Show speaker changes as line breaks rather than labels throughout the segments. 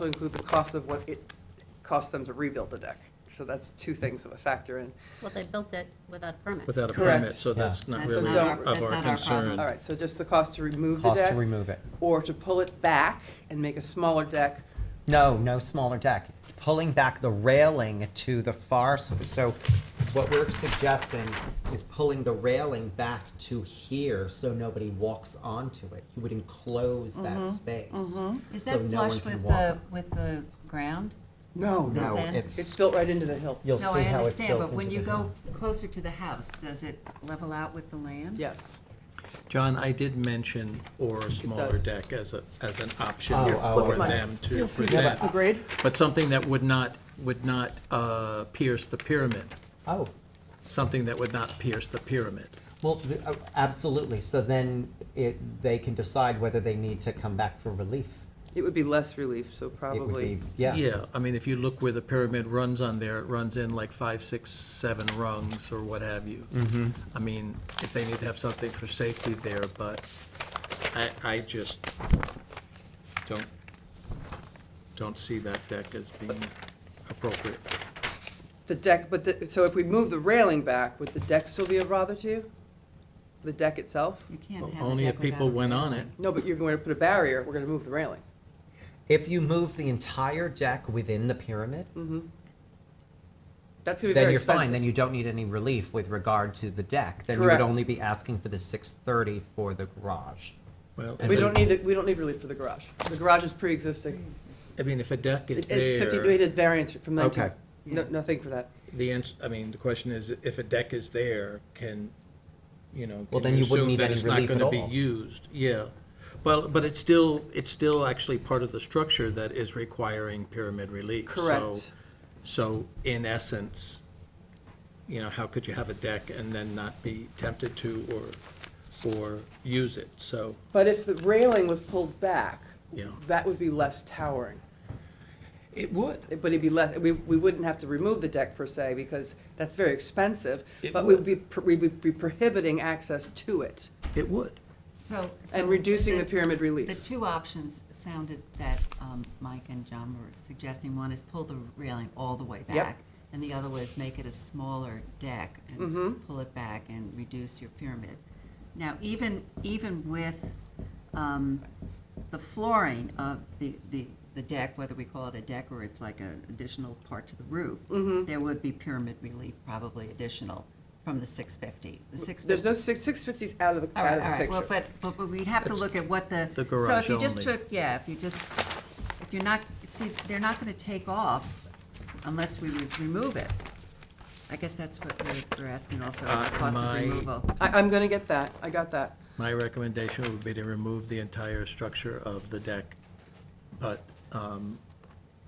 also include the cost of what it costs them to rebuild the deck. So that's two things that would factor in.
Well, they built it without a permit.
without a
Correct.
permit, so that's not
That's
really
not our-
of
that's
our
not our problem.
concern.
All right, so just the cost to remove the
Cost to
deck,
remove it.
or to pull it back and make a smaller deck.
No, no smaller deck. Pulling back the railing to the far, s- so what we're suggesting is pulling the railing back to here so nobody walks onto it. You would enclose that space.
Mm-hmm, Is
so
that
no one
flush
can
with
walk
the,
on it.
with the ground?
No,
this
No,
end?
It's
it's,
built right into the hill.
you'll see
No,
how
I
it's built
understand, but when
into
you
the
go
ground.
closer to the house, does it level out with the land?
Yes.
John, I did mention or a smaller
does.
deck as a, as an option
Oh, oh,
for
okay.
them to
see
present.
that. Agreed.
But something that would not, would not uh, pierce the pyramid,
Oh,
something that would not pierce the pyramid.
well, th- uh, absolutely. So then it, they can decide whether they need to come back for relief.
It would be less relief, so
It would
probably.
be, yeah.
Yeah, I mean, if you look where the pyramid runs on there, it runs in like five, six, seven rungs or what have you.
Mm-hmm.
I mean, if they need to have something for safety there, but I, I just don't, don't see that deck as being appropriate.
The deck, but, the- so if we move the railing back, would the deck still be a bother to you? The deck itself?
You can't have a
Only
deck
if people
without a
went on
railing.
it.
No, but you're going to put a barrier, we're going to move the railing.
If you move the entire deck within the pyramid,
That's going to be
then
very
you're
expensive.
fine. Then you don't need any relief with regard to the deck. Then
Correct.
you would only be asking for the 630 for the garage.
Well,
We don't need, it- we don't need relief for the garage. The garage is pre-existing.
I mean, if a deck is
It's
there.
fifty, we did variance from nineteen.
Okay.
No, nothing for that.
The ans I mean, the question is, if a deck is there, can, you know,
Well,
can
then
you
you
assume
wouldn't need
that
any
it's not
relief at
gonna be
all.
used? Yeah. Well, but it's still, it's still actually part of the structure that is requiring pyramid relief. So-
Correct.
So in essence, you know, how could you have a deck and then not be tempted to or, or use it? So,
But if the railing was pulled back,
Yeah.
that would be less towering.
it would.
It- But it'd be less, we, we wouldn't have to remove the deck per se, because that's very expensive.
It
But we'd
would.
be, pr- we would be prohibiting access to it
It would.
So. so
and reducing the pyramid
The
relief.
two options sounded that um, Mike and John were suggesting, one is pull the railing all the way
Yep.
back. And the other was make it a smaller deck
Mm-hmm.
and pull it back and reduce your pyramid. Now, even, even with um, the flooring of the, the, the deck, whether we call it a deck or it's like an additional part to the roof,
Mm-hmm.
there would be pyramid relief probably additional from the 650. The 650
There's no, six, six fifty's out of the,
all
out
right,
of
all right,
the
well,
picture.
but, but but we'd have to look at what the.
The garage
So if you just
only.
took, yeah, if you just, if you're not, see, they're not gonna take off unless we would remove it. I guess that's what we're- we're asking also, is the
Uh,
cost of
my-
removal.
I, I'm gonna get that, I got that.
My recommendation would be to remove the entire structure of the deck, but um,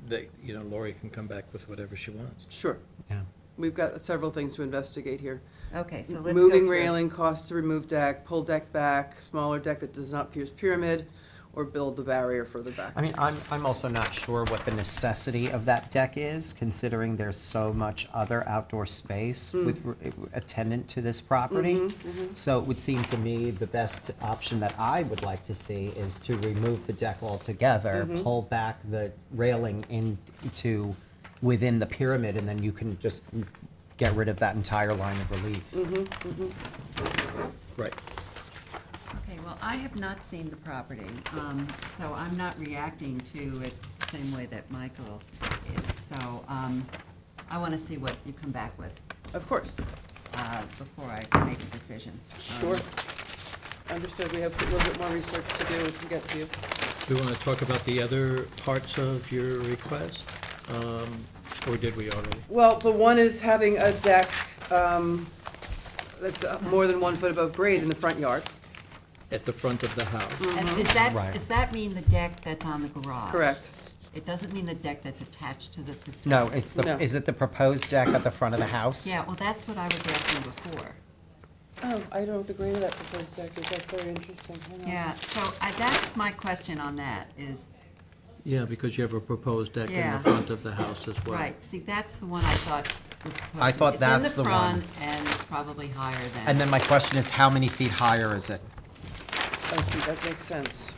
they, you know, Lori can come back with whatever she wants.
Sure,
Yeah.
we've got several things to investigate here.
Okay, so let's go
Moving
through.
railing, cost to remove deck, pull deck back, smaller deck that does not pierce pyramid, or build the barrier further back.
I mean, I'm, I'm also not sure what the necessity of that deck is, considering there's so much other outdoor space
Hmm.
with re- attendant to this property.
Mm-hmm,
So it would seem to me the best option that I would like to see is to remove the deck altogether,
Mm-hmm.
pull back the railing into within the pyramid, and then you can just get rid of that entire line of relief.
Right.
Okay, well, I have not seen the property, um, so I'm not reacting to it the same way that Michael is. So, um, I wanna see what you come back with,
Of course,
uh, before I make a decision.
sure.
Um,
Understood, we have a little bit more research to do, we can get to you.
Do you want to talk about the other parts of your request? Um, Or did we already?
Well, the one is having a deck um, that's uh, more than one foot above grade in the front yard.
At the front of the house?
And is that,
Right.
does that mean the deck that's on the garage?
Correct.
It doesn't mean the deck that's attached to the facility?
No, it's
No.
the, is it the proposed deck at the front of the house?
Yeah, well, that's what I was asking before.
Oh, I don't know what the grade of that proposed deck is, that's very interesting. Hang on.
Yeah, so I, that's my question on that is,
Yeah, because you have a proposed deck in the
Yeah.
front of the house as well.
right, see, that's the one I thought was supposed to.
I thought that's
It's in
the
the
one.
front and it's probably higher than.
And then my question is, how many feet higher is it?
I see, that makes sense.